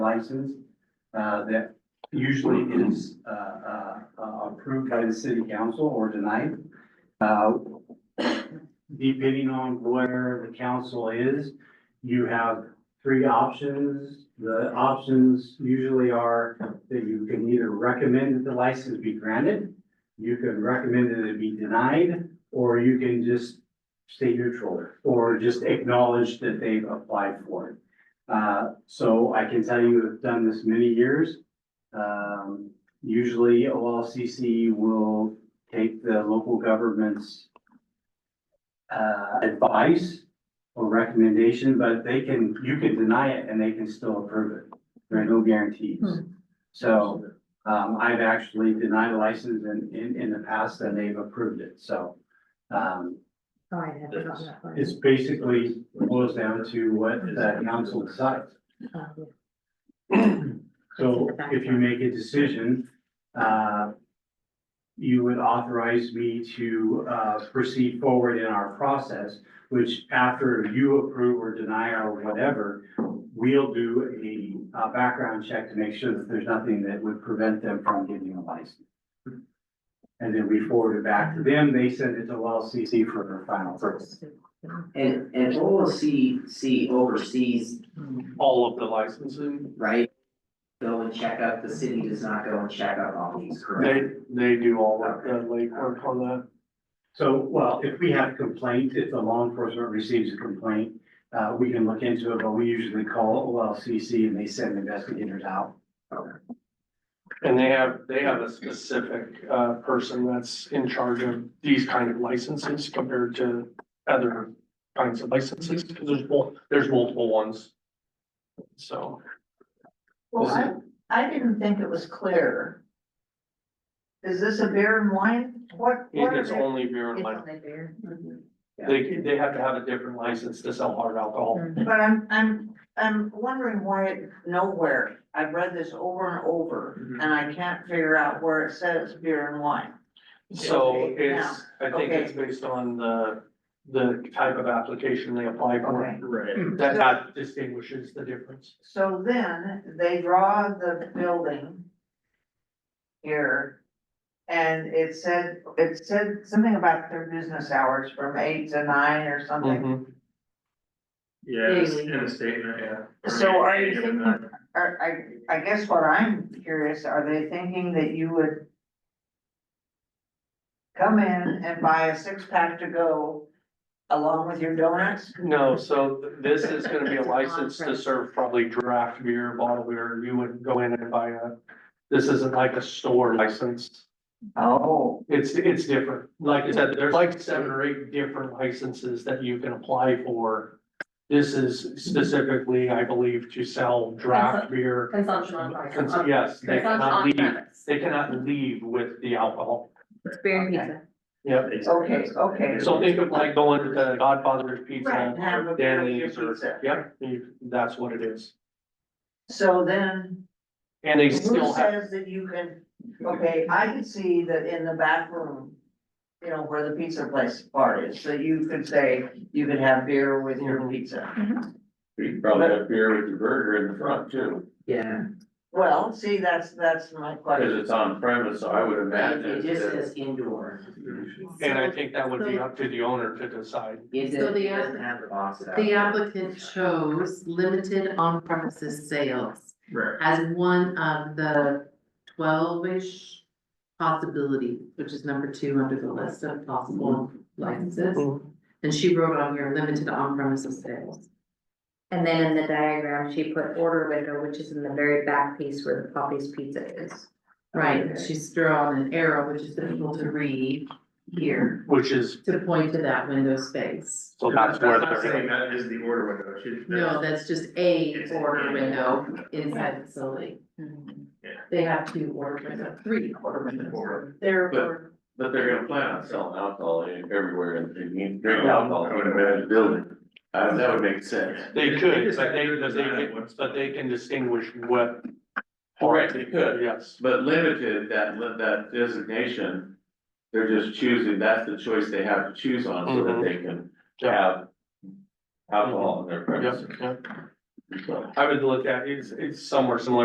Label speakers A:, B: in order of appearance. A: license, uh, that usually is, uh, uh, uh, approved by the city council or denied. Uh, depending on where the council is, you have three options. The options usually are that you can either recommend that the license be granted, you can recommend that it be denied, or you can just stay neutral, or just acknowledge that they've applied for it. Uh, so I can tell you, I've done this many years. Um, usually OLCC will take the local government's uh, advice or recommendation, but they can, you can deny it and they can still approve it. There are no guarantees. So, um, I've actually denied a license in, in, in the past and they've approved it, so. Um,
B: Oh, I had forgotten that part.
A: it's basically boils down to what the council decides.
B: Oh, yeah.
A: So if you make a decision, uh, you would authorize me to, uh, proceed forward in our process, which after you approve or deny or whatever, we'll do a, uh background check to make sure that there's nothing that would prevent them from getting a license. And then we forward it back to them. They send it to LCC for their final approval.
C: And, and OLCC oversees,
D: all of the licensing.
C: right? Go and check up, the city does not go and check up on these,
D: They,
C: correct?
D: they do all of the legwork on that.
A: So, well, if we have complaint, if the law enforcement receives a complaint, uh, we can look into it, but we usually call OLCC and they send investigators out.
D: And they have, they have a specific, uh, person that's in charge of these kind of licenses compared to other kinds of licenses. 'cause There's mul, there's multiple ones. So,
E: Well,
D: Is
E: I, I didn't think it was clear. Is this a beer and wine? What, what are
D: it's
E: they?
D: only beer and
B: It's
D: wine.
B: on there.
D: They, they have to have a different license to sell hard alcohol.
E: But I'm, I'm, I'm wondering why it nowhere, I've read this over and over,
D: Mhm.
E: and I can't figure out where it says beer and wine.
D: So
E: Okay,
D: it's, I think it's based on the, the type of application they apply for.
E: Okay.
D: Right. That, that distinguishes the difference.
E: So then they draw the building here. And it said, it said something about their business hours from eight to nine or something.
D: Mhm.
F: Yeah, it's
B: Daily.
F: in a statement, yeah.
E: So are you
F: Yeah,
E: thinking-
F: that-
E: Are, I, I guess what I'm curious, are they thinking that you would come in and buy a six pack to go along with your donuts?
D: No, so th- this is gonna be a license to serve probably draft beer, bottle beer, you wouldn't go in and buy a, this isn't like a store license.
E: Oh.
D: It's, it's different, like I said, there's like seven or eight different licenses that you can apply for. This is specifically, I believe, to sell draft beer.
B: Consumption on
D: Cons-
B: premise.
D: Yes,
B: Consumption
D: they cannot
B: on
D: leave,
B: premise.
D: they cannot leave with the alcohol,
B: It's beer and
E: Okay.
B: pizza.
D: yep.
E: Okay, okay.
D: So think of like going to Godfather's Pizza,
E: Right, have a beer with your
D: Danny's, or,
E: pizza.
D: yep, you- that's what it is.
E: So then,
D: And they
E: who
D: still have.
E: says that you can, okay, I can see that in the back room, you know, where the pizza place part is, so you could say you could have beer with your pizza.
G: You can probably have beer with your burger in the front too,
C: Yeah,
E: Well, see, that's, that's my
G: because
E: question.
G: it's on premise, so I would
C: it it
G: imagine
C: just
G: that.
C: is indoor,
D: And I think that would be up to the owner to decide.
C: it
H: So
C: doesn't,
H: the
C: it doesn't
H: app-
C: have the box. out.
H: The applicant chose limited on premises sales
F: Right.
H: as one of the twelve-ish possibilities, which is number two under the list of possible licenses. And she wrote on here, limited on premises sales.
B: And then in the diagram, she put order window, which is in the very back piece where the Poppy's Pizza is.
H: Right, she's drawn an arrow, which is difficult to read here,
D: Which is,
H: to point to that window space.
D: so that's where
F: not Saying
D: they're.
F: that is the order window, it should.
H: No, that's just a order window inside the facility. They have two order window, three order windows.
E: There
G: But-
E: were-
G: But they're gonna plan on selling alcohol everywhere and they need drink alcohol in the building. Uh, that would make sense.
D: They could, but they,
F: They
D: but they, can- but they can distinguish what.
G: Right, they could.
D: Yes,
G: But limited, that, li- that designation, they're just choosing, that's the choice they have to choose on so that they can
D: Mm-hmm. yeah,
G: have alcohol in their
D: yeah,
G: premises.
D: yeah. I would look at, it's, it's somewhere similar